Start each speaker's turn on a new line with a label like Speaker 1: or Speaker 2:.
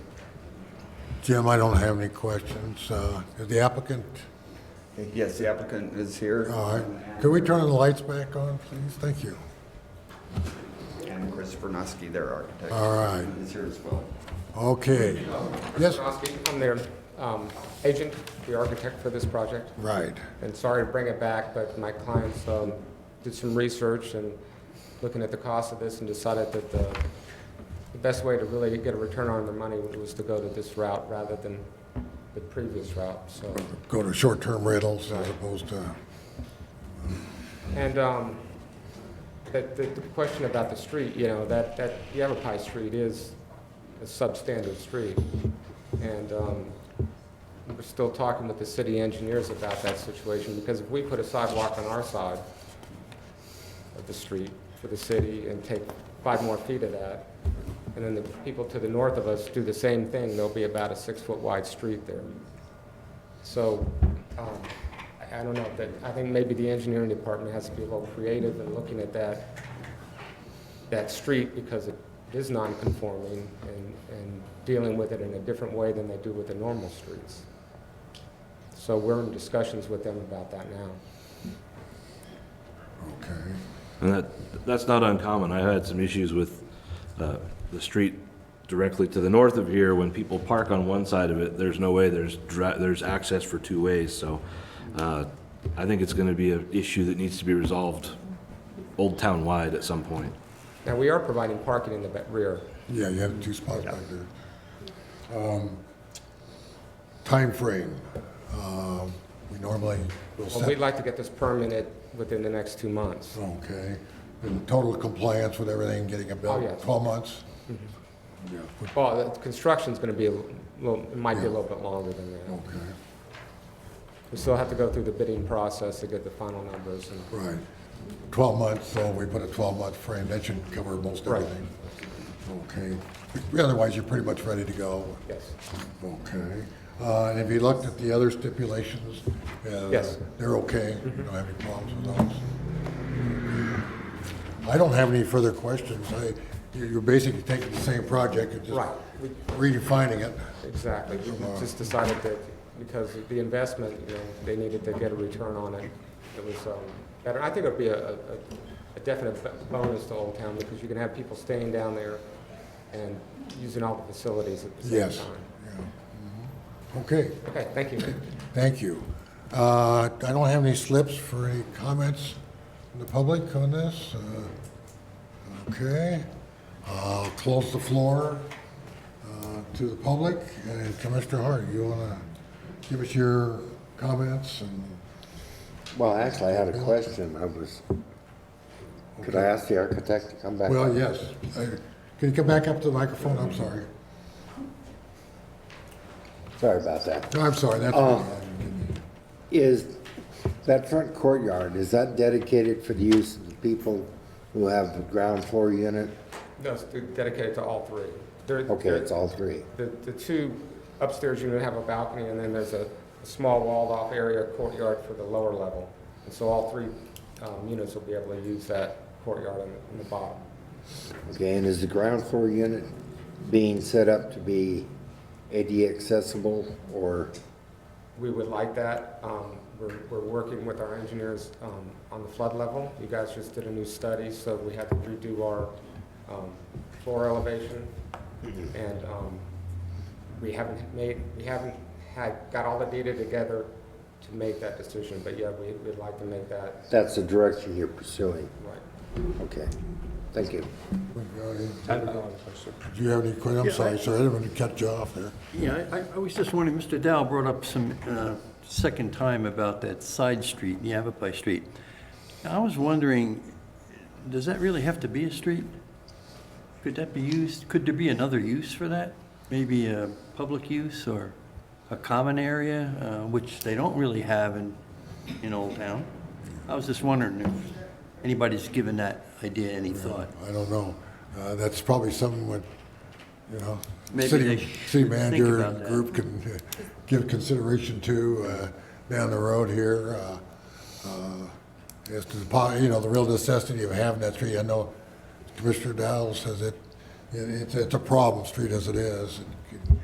Speaker 1: Jim, I don't have any questions. Uh, Is the applicant,
Speaker 2: Yes, the applicant is here.
Speaker 1: all right. Can we turn the lights back on, please? Thank you.
Speaker 2: And Chris Bernowski, their architect.
Speaker 1: All right.
Speaker 2: Is here as well.
Speaker 1: Okay. Yes,
Speaker 3: I'm their um, agent, the architect for this project,
Speaker 1: right.
Speaker 3: and sorry to bring it back, but my clients um, did some research and looking at the cost of this and decided that the the best way to really get a return on their money was to go to this route rather than the previous route, so.
Speaker 1: Go to short-term rentals as opposed to,
Speaker 3: And um, that, the the question about the street, you know, that, that Yavapai Street is a substandard street. And um, we're still talking with the city engineers about that situation, because if we put a sidewalk on our side of the street for the city and take five more feet of that, and then the people to the north of us do the same thing, there'll be about a six-foot wide street there. So, um, I I don't know, but I think maybe the engineering department has to be a little creative in looking at that, that street because it is non-conforming and, and dealing with it in a different way than they do with the normal streets. So we're in discussions with them about that now.
Speaker 1: okay.
Speaker 4: And that, that's not uncommon. I had some issues with uh, the street directly to the north of here. When people park on one side of it, there's no way, there's, dri- there's access for two ways. So uh, I think it's going to be an issue that needs to be resolved Old Town wide at some point.
Speaker 3: Now, we are providing parking in the ba- rear.
Speaker 1: Yeah, you have two spots back there. Time frame. Um, we normally will
Speaker 3: Well, we'd
Speaker 1: set,
Speaker 3: like to get this permitted within the next two months.
Speaker 1: okay, in total compliance with everything, getting it
Speaker 3: Oh,
Speaker 1: built,
Speaker 3: yes. Mm-hmm.
Speaker 1: 12 months? Yeah,
Speaker 3: Well, the construction's gonna be a little, it might be a little bit longer than that.
Speaker 1: okay,
Speaker 3: We still have to go through the bidding process to get the final numbers and
Speaker 1: right. 12 months, so we put a 12-month frame, that should cover most
Speaker 3: Right.
Speaker 1: everything. Okay, otherwise you're pretty much ready to go.
Speaker 3: Yes.
Speaker 1: Okay. Uh, And have you looked at the other stipulations? Uh,
Speaker 3: Yes.
Speaker 1: They're okay? You don't have any problems with those? I don't have any further questions. I, you- you're basically taking the same project and just
Speaker 3: Right. We-
Speaker 1: redefining it.
Speaker 3: Exactly. We just decided that because of the investment, you know, they needed to get a return on it. It was um, better. I think it'd be a, a- a definite b- bonus to Old Town because you can have people staying down there and using all the facilities at the same
Speaker 1: Yes.
Speaker 3: time.
Speaker 1: Yeah. Mhm. Okay,
Speaker 3: Okay, thank you.
Speaker 1: thank you. Uh, I don't have any slips for any comments from the public on this. Uh, Okay. I'll close the floor. uh, to the public, and Commissioner Hart, you want to give us your comments and,
Speaker 5: Well, actually, I had a question. I was, could I ask the architect to come back?
Speaker 1: well, yes. Uh, Can you come back up to the microphone? I'm sorry.
Speaker 5: Sorry about that.
Speaker 1: No, I'm sorry, that's,
Speaker 5: Is that front courtyard, is that dedicated for the use of the people who have the ground floor unit?
Speaker 3: No, it's dedicated to all three. They're-
Speaker 5: Okay,
Speaker 3: they're-
Speaker 5: it's all three.
Speaker 3: The, the two upstairs unit have a balcony, and then there's a a small walled-off area courtyard for the lower level. And so all three um, units will be able to use that courtyard on the- on the bottom.
Speaker 5: Okay, and is the ground floor unit being set up to be ADA accessible or,
Speaker 3: We would like that. Um, We're, we're working with our engineers um, on the flood level. You guys just did a new study, so we had to redo our um, floor elevation. And um, we haven't made, we haven't had, got all the data together to make that decision, but yeah, we, we'd like to make that
Speaker 5: that's the direction you're pursuing?
Speaker 3: right.
Speaker 5: Okay, thank you.
Speaker 1: do you have any, que- I'm sorry, sir, I didn't mean to cut you off there.
Speaker 6: Yeah, I, I was just wondering, Mr. Dow brought up some, uh, second time about that side street, Yavapai Street. I was wondering, does that really have to be a street? Could that be used, could there be another use for that? Maybe a public use or a common area, uh, which they don't really have in, in Old Town? I was just wondering if anybody's given that idea any thought.
Speaker 1: I don't know. Uh, That's probably something what, you know,
Speaker 6: Maybe
Speaker 1: city,
Speaker 6: they
Speaker 1: city
Speaker 6: should
Speaker 1: manager
Speaker 6: think about
Speaker 1: and
Speaker 6: that.
Speaker 1: group can uh, give consideration to uh, down the road here. uh, uh, As to, the po- you know, the real necessity of having that street. I know Commissioner Dowell says it, it- it's, it's a problem street as it is. and